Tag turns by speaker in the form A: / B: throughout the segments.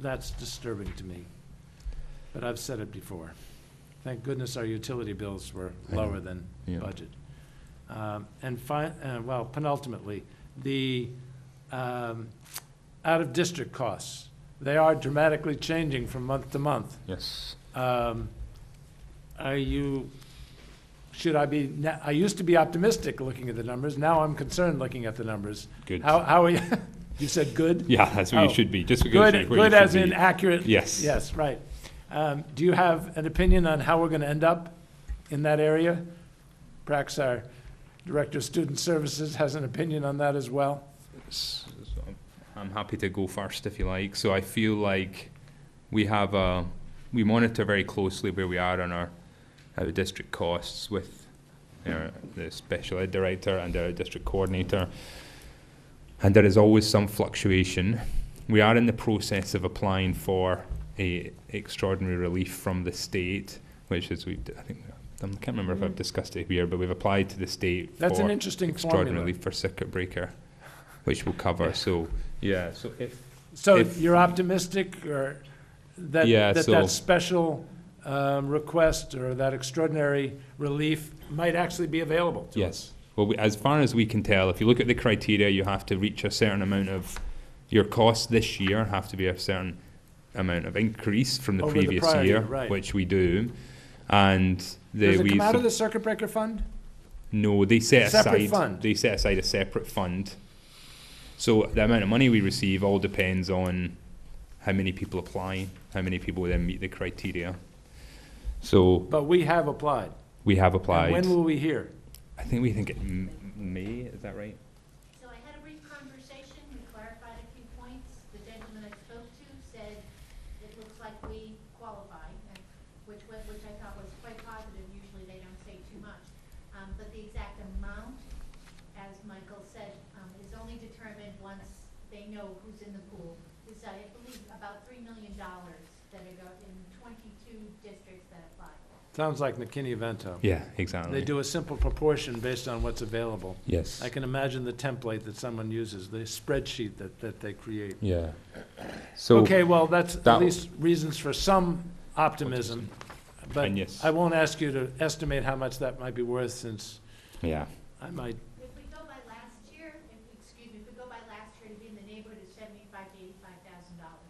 A: That's disturbing to me. But I've said it before. Thank goodness our utility bills were
B: I know.
A: lower than
B: Yeah.
A: budget. Um, And fi, uh, well, penultimately, the, um, out-of-district costs, they are dramatically changing from month to month.
B: Yes.
A: Um, Are you, should I be, na- I used to be optimistic looking at the numbers, now I'm concerned looking at the numbers.
C: Good.
A: How, how are you, you said good?
C: Yeah, that's what
A: Oh.
C: you should be, just because.
A: Good,
C: what you
A: good as
C: should
A: in
C: be.
A: accurate?
C: Yes.
A: Yes, right. Um, Do you have an opinion on how we're going to end up in that area? Perhaps our Director of Student Services has an opinion on that as well?
C: S- so I'm- I'm happy to go first if you like. So I feel like we have a, we monitor very closely where we are on our out of district costs with our, the special ed director and our district coordinator. And there is always some fluctuation. We are in the process of applying for a extraordinary relief from the state, which is we I think I can't remember if I've discussed it here, but we've applied to the state
A: Mm-hmm. That's an
C: for
A: interesting
C: extraordinary
A: formula.
C: relief for circuit breaker, which we'll cover, so, yeah, so if.
A: So
C: if-
A: you're optimistic or that,
C: Yeah,
A: that
C: so-
A: that special um, request or that extraordinary relief might actually be available to us?
C: Yes, well, we- as far as we can tell, if you look at the criteria, you have to reach a certain amount of, your costs this year have to be a certain amount of increase from the
A: Over the
C: previous
A: prior
C: year,
A: year, right.
C: which we do, and they,
A: Does
C: we.
A: it come out
C: sub-
A: of the circuit breaker fund?
C: No, they set
A: Separate
C: aside.
A: fund?
C: They set aside a separate fund. So the amount of money we receive all depends on how many people apply, how many people then meet the criteria. So
A: But we have applied.
C: we have
A: And
C: applied.
A: When will we hear?
C: I think we think it m- May. Is that right?
D: So I had a brief conversation, we clarified a few points. The gentleman I spoke to said it looks like we qualify, and which, wa- which I thought was quite positive. Usually they don't say too much. Um, But the exact amount, as Michael said, um, is only determined once they know who's in the pool. It's, I believe, about $3 million that are go- in 22 districts that apply.
A: Sounds like McKinney-Vento.
C: Yeah, exactly.
A: They do a simple proportion based on what's available.
C: Yes.
A: I can imagine the template that someone uses, the spreadsheet that, that they create.
C: yeah. So
A: Okay, well, that's at
C: That-
A: least reasons for some optimism, but
C: And yes.
A: I won't ask you to estimate how much that might be worth since
C: yeah,
A: I might,
D: If we go by last year, if, excuse me, if we go by last year, it'd be in the neighborhood of seventy-five to eighty-five thousand dollars.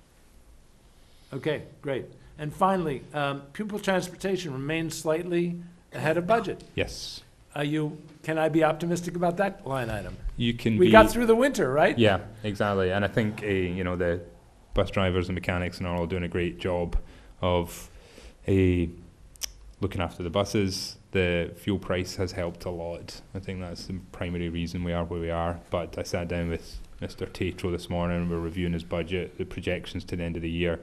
A: okay, great. And finally, um, pupil transportation remains slightly ahead of budget.
C: yes.
A: Are you, can I be optimistic about that line item?
C: You can.
A: We
C: be,
A: got through the winter, right?
C: Yeah, exactly. And I think uh, you know the bus drivers and mechanics and are all doing a great job of a looking after the buses. The fuel price has helped a lot. I think that's the primary reason we are where we are. But I sat down with Mr. Tatro this morning and we're reviewing his budget, the projections to the end of the year.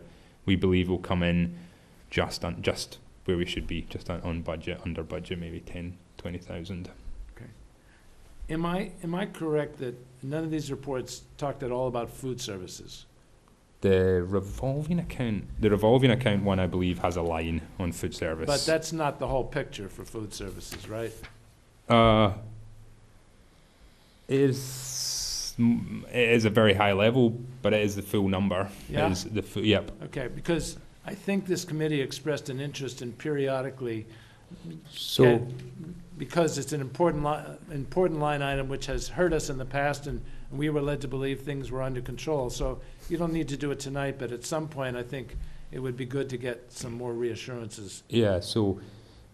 C: We believe will come in just on just where we should be, just on, on budget, under budget, maybe 10, 20,000.
A: Am I, am I correct that none of these reports talked at all about food services?
C: The revolving account, the revolving account one, I believe, has a line on food service.
A: But that's not the whole picture for food services, right?
C: uh, it is mm, it is a very high level, but it is the full number. It
A: Yeah?
C: is the fu- yep.
A: Okay, because I think this committee expressed an interest in periodically,
C: So
A: and- because it's an important li, important line item which has hurt us in the past, and we were led to believe things were under control. So you don't need to do it tonight, but at some point, I think it would be good to get some more reassurances.
C: Yeah, so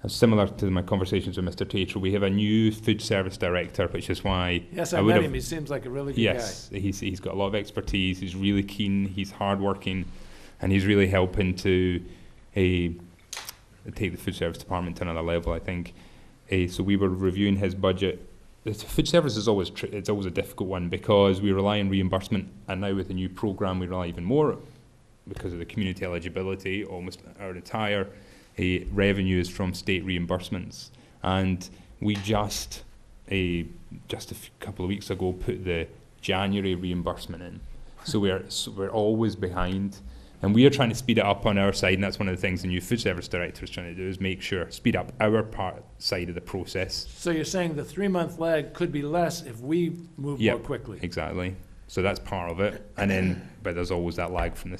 C: uh, similar to my conversations with Mr. Tatro, we have a new food service director, which is why
A: Yes,
C: I
A: I
C: would
A: met
C: have-
A: him, he seems like a really good guy.
C: Yes, he's he's got a lot of expertise. He's really keen. He's hardworking, and he's really helping to eh, take the food service department to another level. I think. Eh, so we were reviewing his budget. The s- food service is always tr- it's always a difficult one because we rely on reimbursement, and now with the new program, we rely even more because of the community eligibility. Almost our entire eh, revenue is from state reimbursements, and we just a just a f- couple of weeks ago put the January reimbursement in. So we're so we're always behind, and we are trying to speed it up on our side. And that's one of the things the new food service director is trying to do is make sure speed up our part side of the process.
A: So you're saying the three-month lag could be less if we move more
C: Yep.
A: quickly?
C: Exactly. So that's part of it, and then but there's always that lag from the